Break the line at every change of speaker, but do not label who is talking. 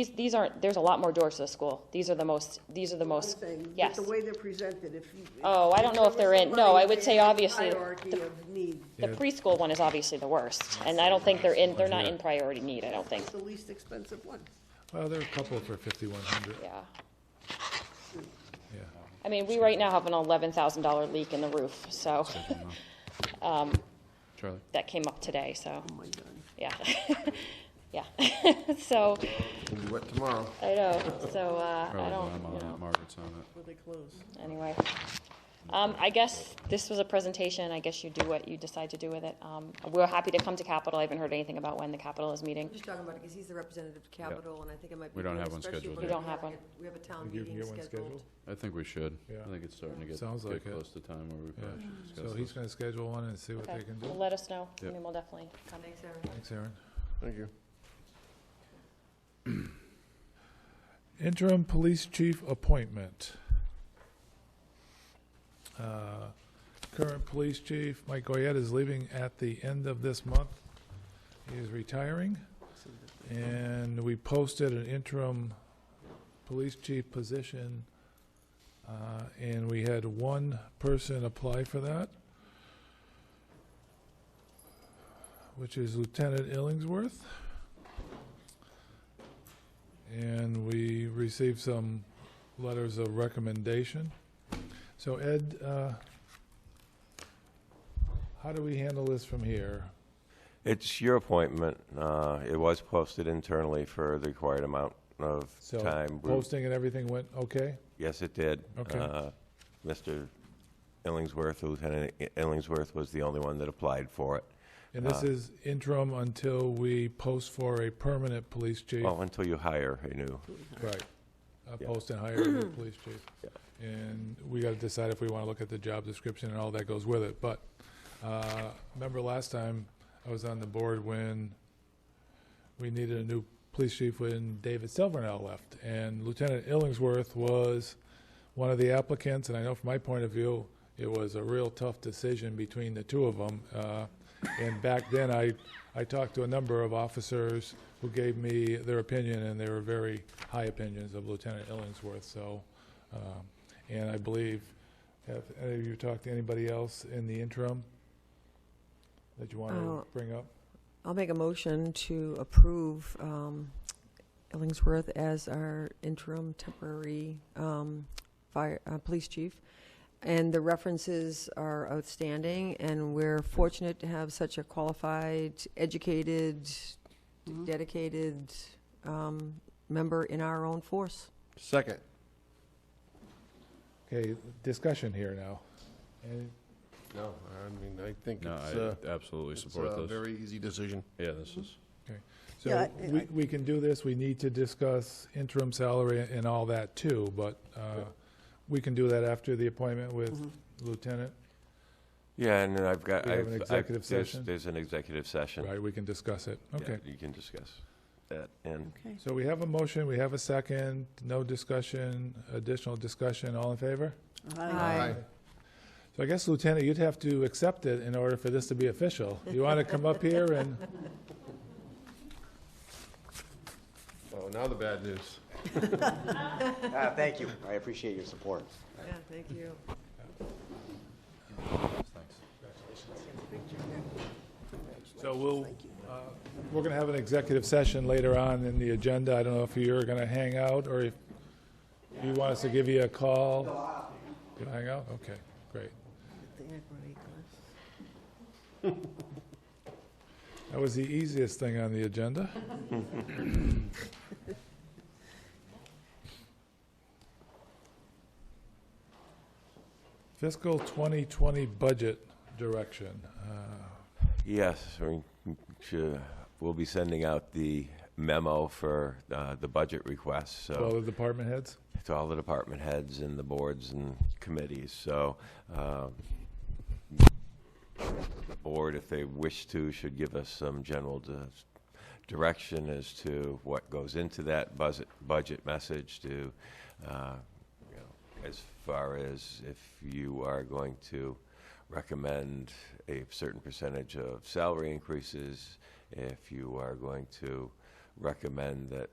These, these aren't, there's a lot more doors to the school. These are the most, these are the
I'm
most,
saying, but
yes.
The way they're presented, if you.
Oh, I don't know if they're in- no, I would say
Hierarchy
obviously the-
Hierarchy of need,
The preschool one is obviously the worst, and I don't think they're in, they're not in priority need, I don't think,
the least expensive one.
Well, there are a couple for fifty-one hundred,
yeah.
yeah.
I mean, we right now have an eleven thousand dollar leak in the roof, so, um,
Charlie?
that came up today, so,
Oh my God.
yeah. Yeah, so,
It'll be wet tomorrow.
I know, so, uh, I
Charlie's
don't,
on it,
you know.
Margaret's on it.
Will they close?
anyway. Um, I guess this was a presentation, I guess you do what you decide to do with it. Um, we're happy to come to Capitol, I haven't heard anything about when the Capitol is meeting.
I'm just talking about it because he's the representative of Capitol, and I think it might be.
We don't
good,
have one
especially
scheduled
when
yet. We don't
we
have one.
We have a town
Think you can
meeting
get one
scheduled.
scheduled?
I think we should.
Yeah.
I think it's starting to get,
Sounds
get
like it.
close to time where we probably should discuss
So
this.
he's gonna schedule one and see what
Okay,
they can
well,
do.
let us know, I
Yep.
mean, we'll definitely come.
Thanks, Aaron.
Thanks, Aaron.
Thank you.
Interim Police Chief appointment. Uh, Current Police Chief Mike Goyette is leaving at the end of this month. He is retiring. And we posted an interim Police Chief position, uh, and we had one person apply for that, which is Lieutenant Illingsworth. And we received some letters of recommendation. So Ed, uh, how do we handle this from here?
It's your appointment. Uh, It was posted internally for the required amount of
So
time. We-
Posting and everything went okay?
Yes, it did.
Okay.
Uh, Mr. Illingsworth, Lieutenant Illingsworth was the only one that applied for it.
And this
Uh,
is interim until we post for a permanent police chief?
Well, Oh, until you hire a new.
Right. Uh,
Yeah.
Post and hire a new police chief.
Yeah.
And we got to decide if we want to look at the job description and all that goes with it. But uh, remember last time I was on the board when we needed a new police chief when David Silvernail left. And Lieutenant Illingsworth was one of the applicants, and I know from my point of view, it was a real tough decision between the two of them. Uh, and back then, I, I talked to a number of officers who gave me their opinion, and they were very high opinions of Lieutenant Illingsworth, so, um, and I believe, have any of you talked to anybody else in the interim that you want to
Oh.
bring up?
I'll make a motion to approve um, Illingsworth as our interim temporary um, fire, uh, police chief. And the references are outstanding, and we're fortunate to have such a qualified, educated, dedicated um, member in our own force.
Second.
Okay, discussion here now. And
No, I mean, I think
No,
it's uh,
I absolutely
it's
support
a
this.
very easy decision.
Yeah, this is,
So
Yeah,
we, we can do this, we need to discuss interim salary and all that too, but uh, we can do that after the appointment with Lieutenant,
Yeah, and then I've got.
We have
I've-
an
I've-
executive
there's-
session?
There's an executive session.
right, we can discuss it,
Yeah,
okay.
You can discuss that. And
Okay.
So we have a motion, we have a second, no discussion, additional discussion, all in favor?
Aye.
So I guess Lieutenant, you'd have to accept it in order for this to be official. You want to come up here and,
Oh, now the bad news.
Ah, Thank you. I appreciate your support.
Yeah, thank you.
so we'll, uh, we're going to have an executive session later on in the agenda, I don't know if you're going to hang out or if you want us to give you a call. You'll hang out, okay, great. That was the easiest thing on the agenda. Fiscal 2020 budget direction. Uh,
Yes, we should- we'll be sending out the memo for uh, the budget request, so.
To all the department heads?
to all the department heads and the boards and committees, so, um, board, if they wish to, should give us some general di- direction as to what goes into that budget, budget message to, uh, you know, as far as if you are going to recommend a certain percentage of salary increases, if you are going to recommend that